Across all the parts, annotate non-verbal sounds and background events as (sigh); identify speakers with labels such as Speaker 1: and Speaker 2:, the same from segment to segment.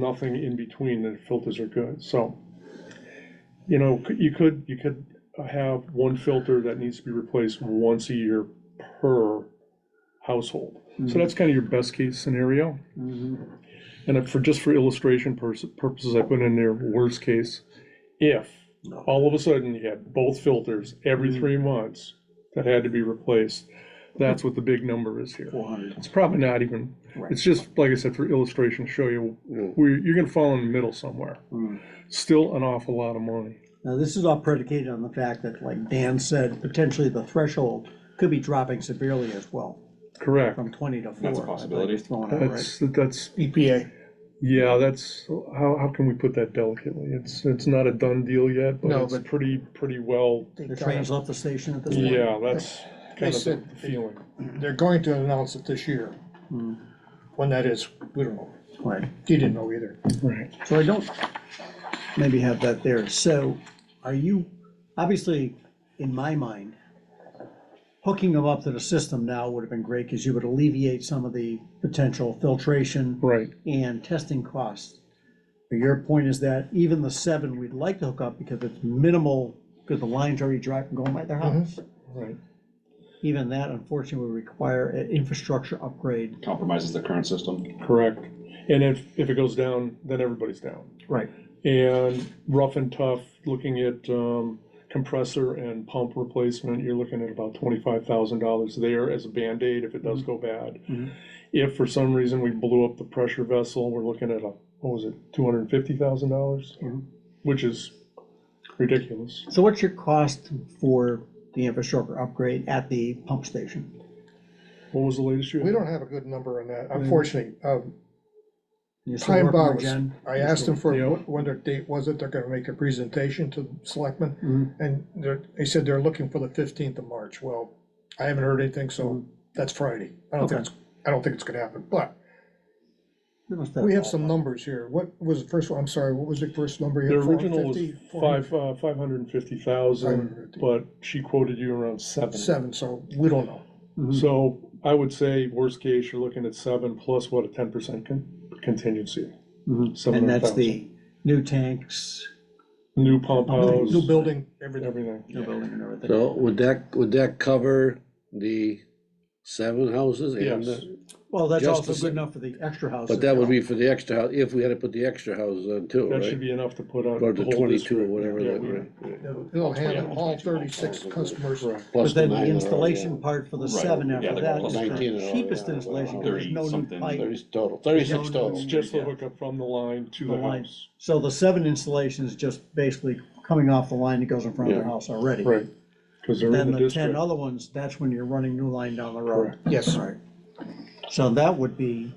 Speaker 1: nothing in between, the filters are good, so. You know, c- you could, you could have one filter that needs to be replaced once a year per household. So that's kind of your best case scenario.
Speaker 2: Mhm.
Speaker 1: And if- for, just for illustration purs- purposes, I put in there worst case. If all of a sudden you had both filters every three months that had to be replaced, that's what the big number is here.
Speaker 2: 400.
Speaker 1: It's probably not even,
Speaker 2: Right.
Speaker 1: it's just, like I said, for illustration, to show you,
Speaker 3: Yeah.
Speaker 1: where, you're gonna fall in the middle somewhere.
Speaker 2: Mm.
Speaker 1: Still an awful lot of money.
Speaker 2: Now, this is all predicated on the fact that, like Dan said, potentially the threshold could be dropping severely as well,
Speaker 1: Correct.
Speaker 2: from twenty to four.
Speaker 4: That's a
Speaker 2: I think,
Speaker 4: possibility.
Speaker 2: is thrown out, right?
Speaker 1: That's, that's,
Speaker 5: EPA.
Speaker 1: yeah, that's, how, how can we put that delicately? It's, it's not a done deal yet, but
Speaker 5: No,
Speaker 1: it's
Speaker 5: but-
Speaker 1: pretty, pretty well,
Speaker 5: they
Speaker 2: The
Speaker 5: got it.
Speaker 2: train's left the station at this point.
Speaker 1: yeah, that's kind of the
Speaker 5: said-
Speaker 1: feeling.
Speaker 5: They're going to announce it this year. Hmm. When that is, we don't know.
Speaker 2: Right,
Speaker 5: You didn't know either.
Speaker 1: Right.
Speaker 2: so I don't maybe have that there, so are you, obviously, in my mind, hooking them up to the system now would have been great, because you would alleviate some of the potential filtration
Speaker 1: Right,
Speaker 2: and testing costs. But Your point is that even the seven, we'd like to hook up because it's minimal, because the line's already driving, going by their
Speaker 5: Mm-hmm.
Speaker 2: house.
Speaker 1: right.
Speaker 2: Even that unfortunately would require an infrastructure upgrade.
Speaker 4: compromises the current system.
Speaker 1: Correct. And if, if it goes down, then everybody's down.
Speaker 2: Right.
Speaker 1: And rough and tough, looking at um, compressor and pump replacement, you're looking at about twenty-five thousand dollars there as a Band-Aid if it does go bad.
Speaker 2: Mhm.
Speaker 1: If for some reason we blew up the pressure vessel, we're looking at a, what was it, two hundred and fifty thousand dollars?
Speaker 2: Mhm.
Speaker 1: Which is ridiculous.
Speaker 2: So what's your cost for the infrastructure upgrade at the pump station?
Speaker 1: What was the latest you
Speaker 5: We
Speaker 1: had?
Speaker 5: don't have a good number on that, unfortunately. Um,
Speaker 2: You still working
Speaker 5: Time
Speaker 2: with
Speaker 5: Bob, was-
Speaker 2: Jen?
Speaker 5: I asked them for
Speaker 1: Yeah.
Speaker 5: when their date was it, they're gonna make a presentation to selectmen.
Speaker 2: Mhm.
Speaker 5: And they're, they said they're looking for the fifteenth of March. Well, I haven't heard anything, so that's Friday. I don't
Speaker 2: Okay.
Speaker 5: think it's, I don't think it's gonna happen, but
Speaker 2: You must
Speaker 5: we have some numbers here. What was the first one? I'm sorry, what was the first number? you
Speaker 1: The
Speaker 5: had?
Speaker 1: original was
Speaker 5: 450? 400?
Speaker 1: five, uh, five hundred and fifty thousand,
Speaker 5: 550.
Speaker 1: but she quoted you around seven.
Speaker 5: Seven, so we don't know.
Speaker 3: Hmm.
Speaker 2: Mhm.
Speaker 1: So I would say, worst case, you're looking at seven plus what, a ten percent contingency?
Speaker 3: Mm-hmm.
Speaker 2: Mhm.
Speaker 1: Some
Speaker 2: And
Speaker 1: of
Speaker 2: that's
Speaker 1: them-
Speaker 2: the new tanks,
Speaker 1: New pump house,
Speaker 5: New building, everything.
Speaker 1: everything.
Speaker 2: new building and everything.
Speaker 3: So would that, would that cover the seven houses and
Speaker 1: Yes,
Speaker 3: the,
Speaker 2: Well, that's
Speaker 3: Just
Speaker 2: also
Speaker 3: the-
Speaker 2: good enough for the extra house.
Speaker 3: but that would be for the extra house, if we had to put the extra houses on too,
Speaker 1: that should
Speaker 3: right?
Speaker 1: be enough to put on.
Speaker 3: Or the
Speaker 1: whole
Speaker 3: twenty-two or
Speaker 1: district.
Speaker 3: whatever
Speaker 1: Yeah,
Speaker 3: that,
Speaker 1: we-
Speaker 3: right?
Speaker 5: It'll it'll handle all thirty-six customers.
Speaker 1: Correct.
Speaker 3: Plus
Speaker 2: But then
Speaker 3: nine
Speaker 2: the
Speaker 3: that are
Speaker 2: installation
Speaker 3: already
Speaker 2: part for the
Speaker 4: Right.
Speaker 2: seven
Speaker 4: Yeah,
Speaker 2: after
Speaker 4: they're
Speaker 2: that
Speaker 4: all
Speaker 2: is
Speaker 3: nineteen
Speaker 2: the
Speaker 3: and all,
Speaker 2: cheapest
Speaker 3: yeah,
Speaker 2: installation,
Speaker 3: well,
Speaker 2: because there's no new
Speaker 4: thirty-something,
Speaker 3: on.
Speaker 2: pipe.
Speaker 3: Thirty total, thirty-six
Speaker 2: No, no,
Speaker 3: total.
Speaker 1: It's just the
Speaker 4: Yeah.
Speaker 1: hookup from the line to
Speaker 2: The
Speaker 1: the
Speaker 2: line.
Speaker 1: house.
Speaker 2: So the seven installation is just basically coming off the line that goes in front of their
Speaker 3: Yeah.
Speaker 2: house already.
Speaker 1: Right, because they're
Speaker 2: Then
Speaker 1: in the
Speaker 2: the ten
Speaker 1: district.
Speaker 2: other ones, that's when you're running new line down the road.
Speaker 5: Yes,
Speaker 2: Right. So that would be,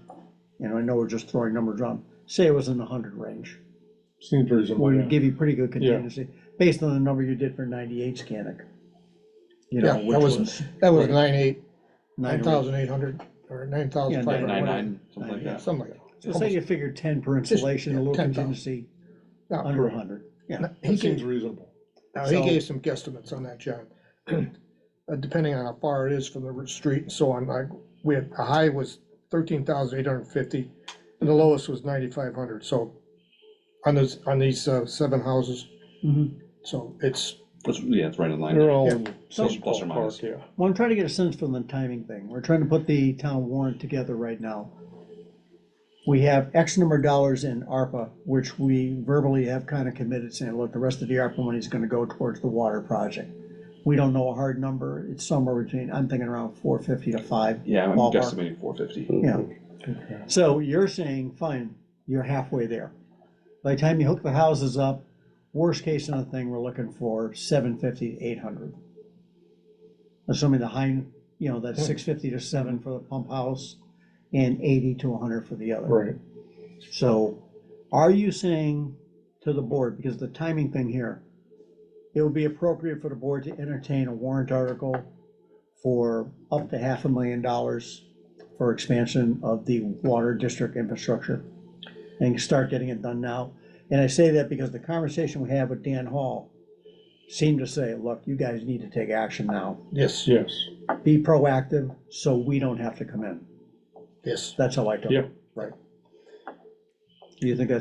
Speaker 2: you know, I know we're just throwing numbers around, say it was in the hundred range.
Speaker 1: Seems reasonable,
Speaker 2: We would
Speaker 1: yeah.
Speaker 2: give you pretty good
Speaker 1: Yeah.
Speaker 2: contingency, based on the number you did for ninety-eight Scannick. You
Speaker 5: Yeah,
Speaker 2: know,
Speaker 5: that
Speaker 2: which
Speaker 5: was
Speaker 2: was
Speaker 5: that was nine eight,
Speaker 2: nine
Speaker 5: nine thousand eight hundred, or nine thousand five
Speaker 2: Yeah,
Speaker 5: hundred.
Speaker 4: Nine nine, something like that.
Speaker 5: Something like
Speaker 2: So say you figure ten per installation, a little
Speaker 5: 10,000.
Speaker 2: contingency,
Speaker 5: Yeah,
Speaker 2: under a hundred, yeah.
Speaker 5: that. He
Speaker 1: That seems
Speaker 5: gave,
Speaker 1: reasonable.
Speaker 5: now, he
Speaker 2: so-
Speaker 5: gave some guesstimates on that, John. (clears throat) Uh, Depending on how far it is from the street and so on, like, we had, the high was thirteen thousand eight hundred and fifty, and the lowest was ninety-five hundred, so on those, on these uh, seven houses,
Speaker 2: Mhm.
Speaker 5: so it's,
Speaker 4: That's- yeah, it's right in
Speaker 1: They're
Speaker 4: line.
Speaker 1: all
Speaker 5: Yeah.
Speaker 1: in
Speaker 4: Plus-
Speaker 1: some
Speaker 4: plus or minus.
Speaker 1: ballpark, yeah.
Speaker 2: Well, I'm trying to get a sense from the timing thing, we're trying to put the town warrant together right now. We have X number of dollars in ARPA, which we verbally have kind of committed, saying, look, the rest of the ARPA money is gonna go towards the water project. We don't know a hard number, it's somewhere between, I'm thinking around four fifty to five.
Speaker 4: Yeah, I'm
Speaker 2: Ballpark.
Speaker 4: guesstimating four fifty.
Speaker 2: Yeah. So you're saying, fine, you're halfway there. By the time you hook the houses up, worst case on the thing, we're looking for seven fifty to eight hundred. Assuming the high, you know, that's six fifty to seven for the pump house and eighty to hundred for the other.
Speaker 1: Right,
Speaker 2: So are you saying to the board, because the timing thing here, it would be appropriate for the board to entertain a warrant article for up to half a million dollars for expansion of the water district infrastructure and start getting it done now. And I say that because the conversation we had with Dan Hall seemed to say, look, you guys need to take action now.
Speaker 5: yes,
Speaker 1: yes.
Speaker 2: Be proactive so we don't have to come in.
Speaker 5: yes.
Speaker 2: That's how I took
Speaker 1: Yeah.
Speaker 2: it. Right. Do you think that's